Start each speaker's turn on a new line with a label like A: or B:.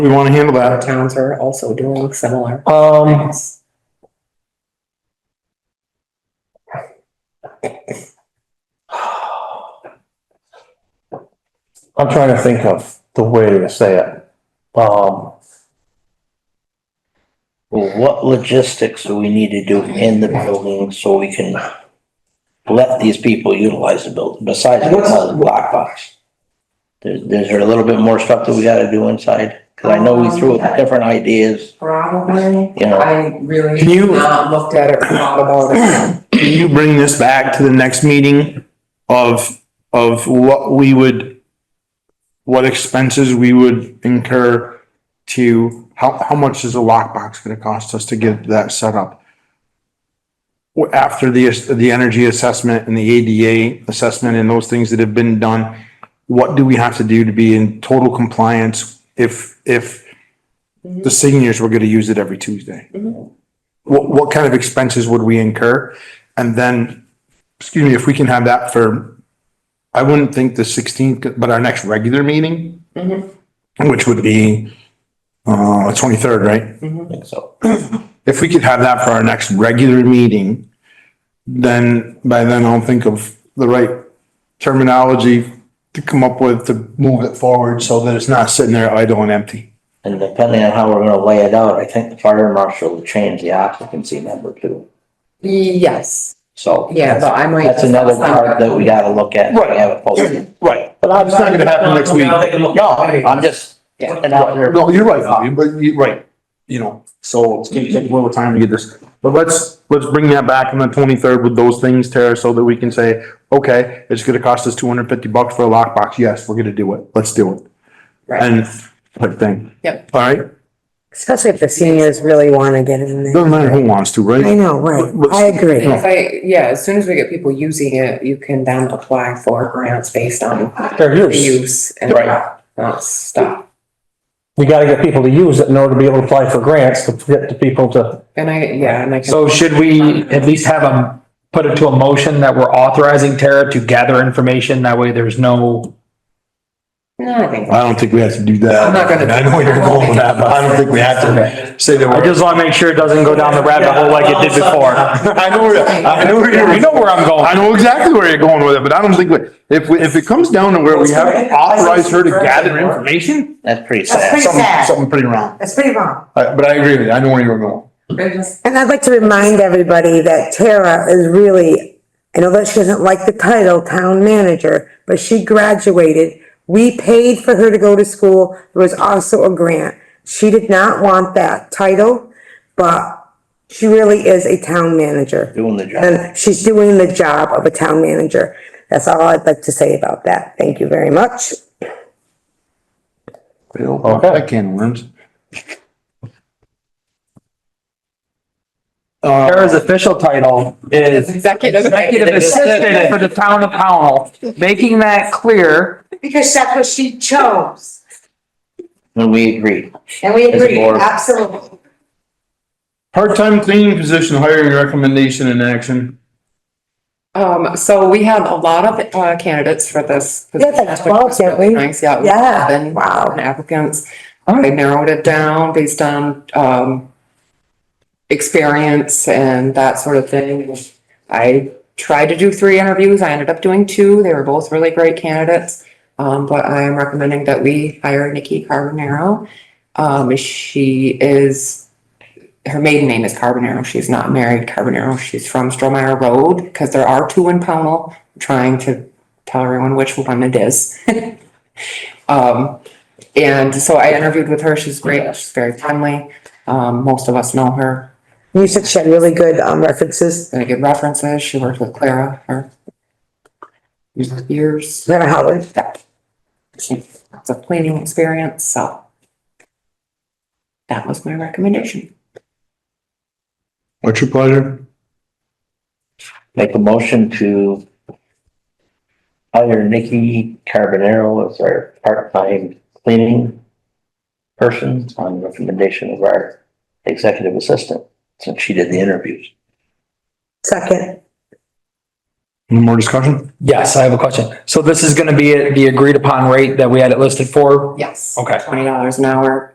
A: we want to handle
B: Our
A: that.
B: towns are also doing similar.
A: Um,
B: things.
A: I'm trying to think of the way to say it. Um,
C: Well, what logistics do we need to do in the building so we can let these people utilize the building besides the black box? There's, there's a little bit more stuff that we gotta do inside, cause I know we threw up different ideas,
B: Probably,
C: you
B: Um,
C: know,
B: I really
A: Can you-
B: have not looked at it, thought about it.
A: can you bring this back to the next meeting of, of what we would, what expenses we would incur to, how, how much is a lockbox gonna cost us to get that set up? Wh- After the, ass- the energy assessment and the ADA assessment and those things that have been done, what do we have to do to be in total compliance if, if the seniors were gonna use it every Tuesday?
B: Mhm.
A: What, what kind of expenses would we incur? And then, excuse me, if we can have that for, I wouldn't think the sixteenth, but our next regular meeting,
B: Mhm.
A: which would be, uh, twenty-third, right?
C: I think so.
A: If we could have that for our next regular meeting, then by then I'll think of the right terminology to come up with to move it forward so that it's not sitting there idle and empty.
C: And depending on how we're gonna lay it out, I think the fire marshal will change the occupancy number too,
B: Yes,
C: so.
B: yeah, but I might.
C: That's another part that we gotta look at, we have it posted.
A: Right. But it's not gonna happen next week.
C: No, I'm just.
B: Yeah.
C: putting out there.
A: No, you're right, Bobby, but you, right, you know, so it's gonna take a little time to get this, but let's, let's bring that back on the twenty-third with those things, Tara, so that we can say, okay, it's gonna cost us two hundred fifty bucks for a lockbox, yes, we're gonna do it, let's do it.
B: Right.
A: And, type thing.
B: Yep.
A: All right,
D: Especially if the seniors really want to get in there.
A: doesn't matter who wants to,
D: I
A: right?
D: know, right.
A: But- but-
D: I agree.
B: If I, yeah, as soon as we get people using it, you can then apply for grants based on the use and
C: Right.
B: that stuff.
E: We gotta get people to use it in order to be able to apply for grants, to get the people to.
B: And I, yeah, and I can.
E: So should we at least have them put it to a motion that we're authorizing Tara to gather information? That way there's no.
B: No, I think.
A: I don't think we have to do that.
B: I'm not gonna-
A: I know where you're going with that, but I don't think we have to say that
E: I
A: we're.
E: just wanna make sure it doesn't go down the rabbit hole like it did before.
A: I know, where- I know where you're,
E: You know where I'm
A: I
E: going.
A: know exactly where you're going with it, but I don't think, we- if, we- if it comes down to where we have to authorize her to gather information,
C: That's pretty
D: That's
C: sad.
D: pretty-
A: something,
D: sad.
A: something pretty wrong.
D: That's pretty wrong.
A: Uh, But I agree with you, I know where you're going.
D: And I'd like to remind everybody that Tara is really, I know that she doesn't like the title town manager, but she graduated. We paid for her to go to school. There was also a grant. She did not want that title, but she really is a town manager.
C: Doing the job.
D: And she's doing the job of a town manager. That's all I'd like to say about that. Thank you very much.
A: Okay. That can of worms. Uh,
E: Tara's official title is
B: Executive.
E: executive assistant for the town of Pownell, making that clear.
F: Because that's what she chose,
C: And we agreed.
F: and we
C: As a
F: agree,
C: board.
F: absolutely.
A: part-time cleaning position hiring recommendation in action.
B: Um, so we had a lot of uh, candidates for this.
D: We had like
B: position, which
D: 12,
B: was
D: didn't
B: really
D: we?
B: Nice, yeah.
D: Yeah,
B: Eleven
D: wow.
B: Applicants, I narrowed it down based on, um, experience and that sort of thing. I tried to do three interviews, I ended up doing two, they were both really great candidates. Um, but I am recommending that we hire Nikki Carbonaro. Um, she is her maiden name is Carbonaro. She's not married Carbonaro. She's from Stromeyer Road because there are two in Pownell. I'm trying to tell everyone which one it is. um, and so I interviewed with her. She's great. She's very friendly. Um, most of us know her.
D: You said she had really good, um, references.
B: Very good references. She worked with Clara for years.
D: Never Howard.
B: She has a planning experience. So that was my recommendation.
A: What's your pleasure?
C: Make a motion to hire Nikki Carbonaro as our part-time cleaning person on recommendation of our executive assistant, since she did the interviews.
D: Second.
A: Any more discussion?
E: Yes, I have a question. So this is gonna be at the agreed upon rate that we had it listed for?
B: Yes.
E: Okay.
B: $20 an hour